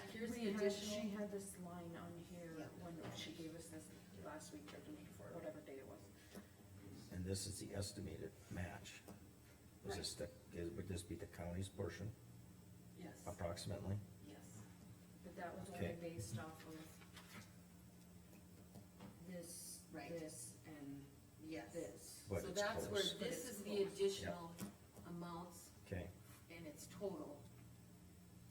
had, additional. she had this line on here Yeah. when she gave us this last week or the week before, whatever day it was. And this is the estimated match. Is this the, is- would this be the county's portion Yes. approximately? Yes. But that was Okay. only based off of this, Right. this, and Yes. this. But So it's that's where close. this is the additional amounts Okay, and it's total.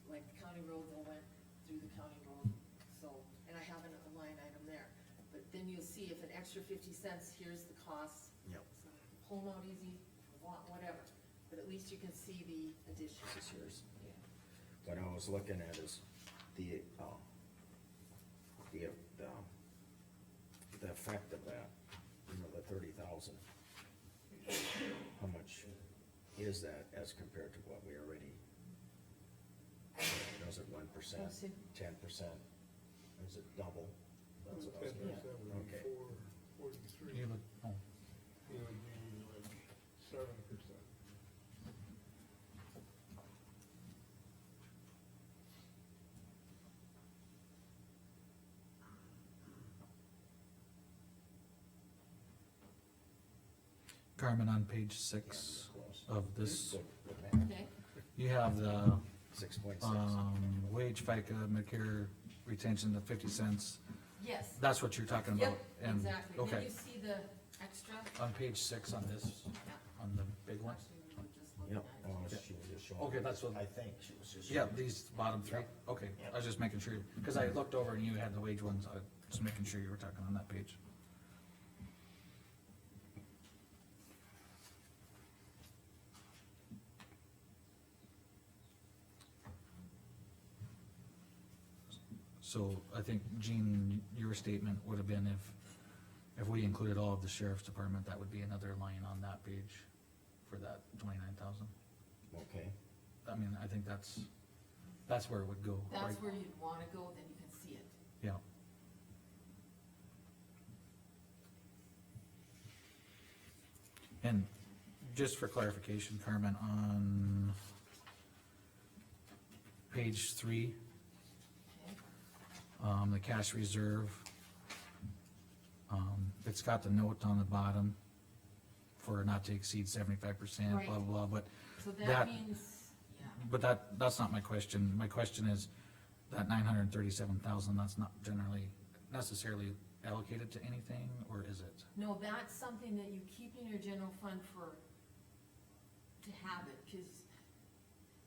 Like the county road that went through the county road, so, and I have an- a line item there. But then you'll see if an extra fifty cents, here's the cost. Yep. So, Pull them out easy, wa- whatever, but at least you can see the addition. this is yours. What I was looking at is the, um, the, um, the effect of that, you know, the thirty thousand. How much is that as compared to what we already? Was it one percent, Let's see. ten percent? Is it double? That's what I was- Yeah. That would be Okay. four forty-three, You it look, oh, would be like seven percent. Carmen, on page Yeah, six close. of Uh, this, Good, good math. Okay, you have the, Six point six. um, wage FICA, Medicare retention, the fifty cents. yes. That's what you're talking about? Yep, and- Exactly, then Okay, you see the extra. on page six on this, Yeah. on the big one? Actually, we were just looking Yep, at it. oh, she was just showing. Okay, that's what- I think she was just. Yeah, showing. these bottom three, okay, I was just making sure, because I looked over and you had the wage ones, I was just making sure you were talking on that page. So I think, Gene, your statement would have been if, if we included all of the sheriff's department, that would be another line on that page for that twenty-nine thousand. Okay, I mean, I think that's, that's where it would go, right? That's where you'd wanna go, then you can see it. Yeah. And just for clarification, Carmen, on page three, Okay. um, the cash reserve, um, it's got the note on the bottom for not to exceed seventy-five percent, blah, Right. blah, blah, but So that That- means, yeah, But that, that's not my question. My question is, that nine hundred and thirty-seven thousand, that's not generally necessarily allocated to anything, or is it? no, that's something that you keep in your general fund for, to have it, cause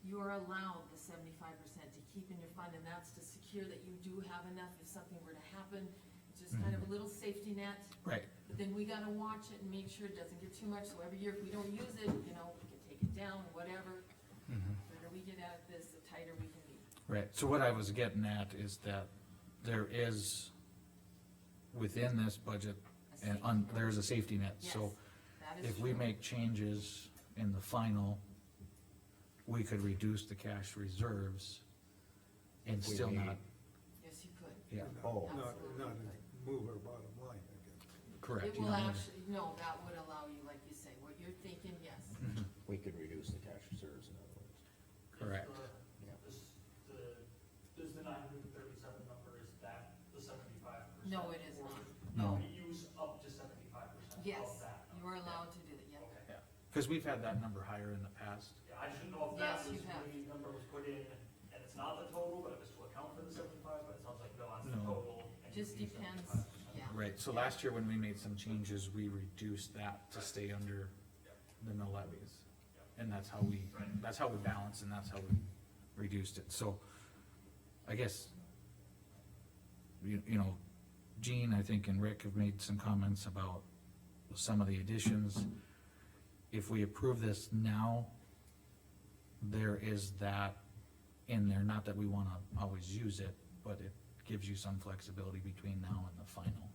you are allowed the seventy-five percent to keep in your fund, and that's to secure that you do have enough if something were to happen. It's Just kind Mm-hmm. of a little safety net, Right. but then we gotta watch it and make sure it doesn't get too much, so every year if we don't use it, you know, we can take it down, whatever. Mm-hmm. The better we get at this, the tighter we can be. Right, so what I was getting at is that there is, within this budget, A and safety on, net. there is a safety net, Yes, so that is if we true. make changes in the final, we could reduce the cash reserves and If we still made- not, Yes, you could. yeah, oh, Not, not move our bottom line, I guess. correct. It you will know, actually, no, that would allow you, like you say, what you're thinking, yes. Mm-hmm. we could reduce the cash reserves in other words. Correct. Yeah. Uh, This, the, this the nine hundred and thirty-seven number, is that the seventy-five percent? No, it is not. No. We use up to seventy-five percent Yes, of that you number. are allowed to do that, yeah. Okay, Yeah, because we've had that number higher in the past. yeah, I should know if that Yes, was you have. when the number was put in, and it's not the total, but it was to account for the seventy-five, but it sounds like, no, that's the No. total. and Just you use depends, 75%. yeah. Right, so last year when we made some changes, we reduced that to stay under the mill levies. And that's how we, that's how we balance and that's how we reduced it, so I guess you, you know, Gene, I think, and Rick have made some comments about some of the additions. If we approve this now, there is that in there, not that we wanna always use it, but it gives you some flexibility between now and the final.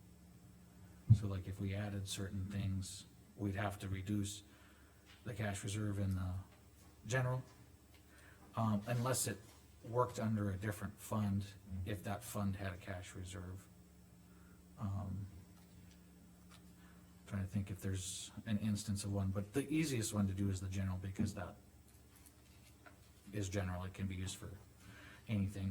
So like if we added certain things, we'd have to reduce the cash reserve in the general. Um, unless it worked under a different fund, if that fund had a cash reserve. Um, Trying to think if there's an instance of one, but the easiest one to do is the general because that is general, it can be used for anything.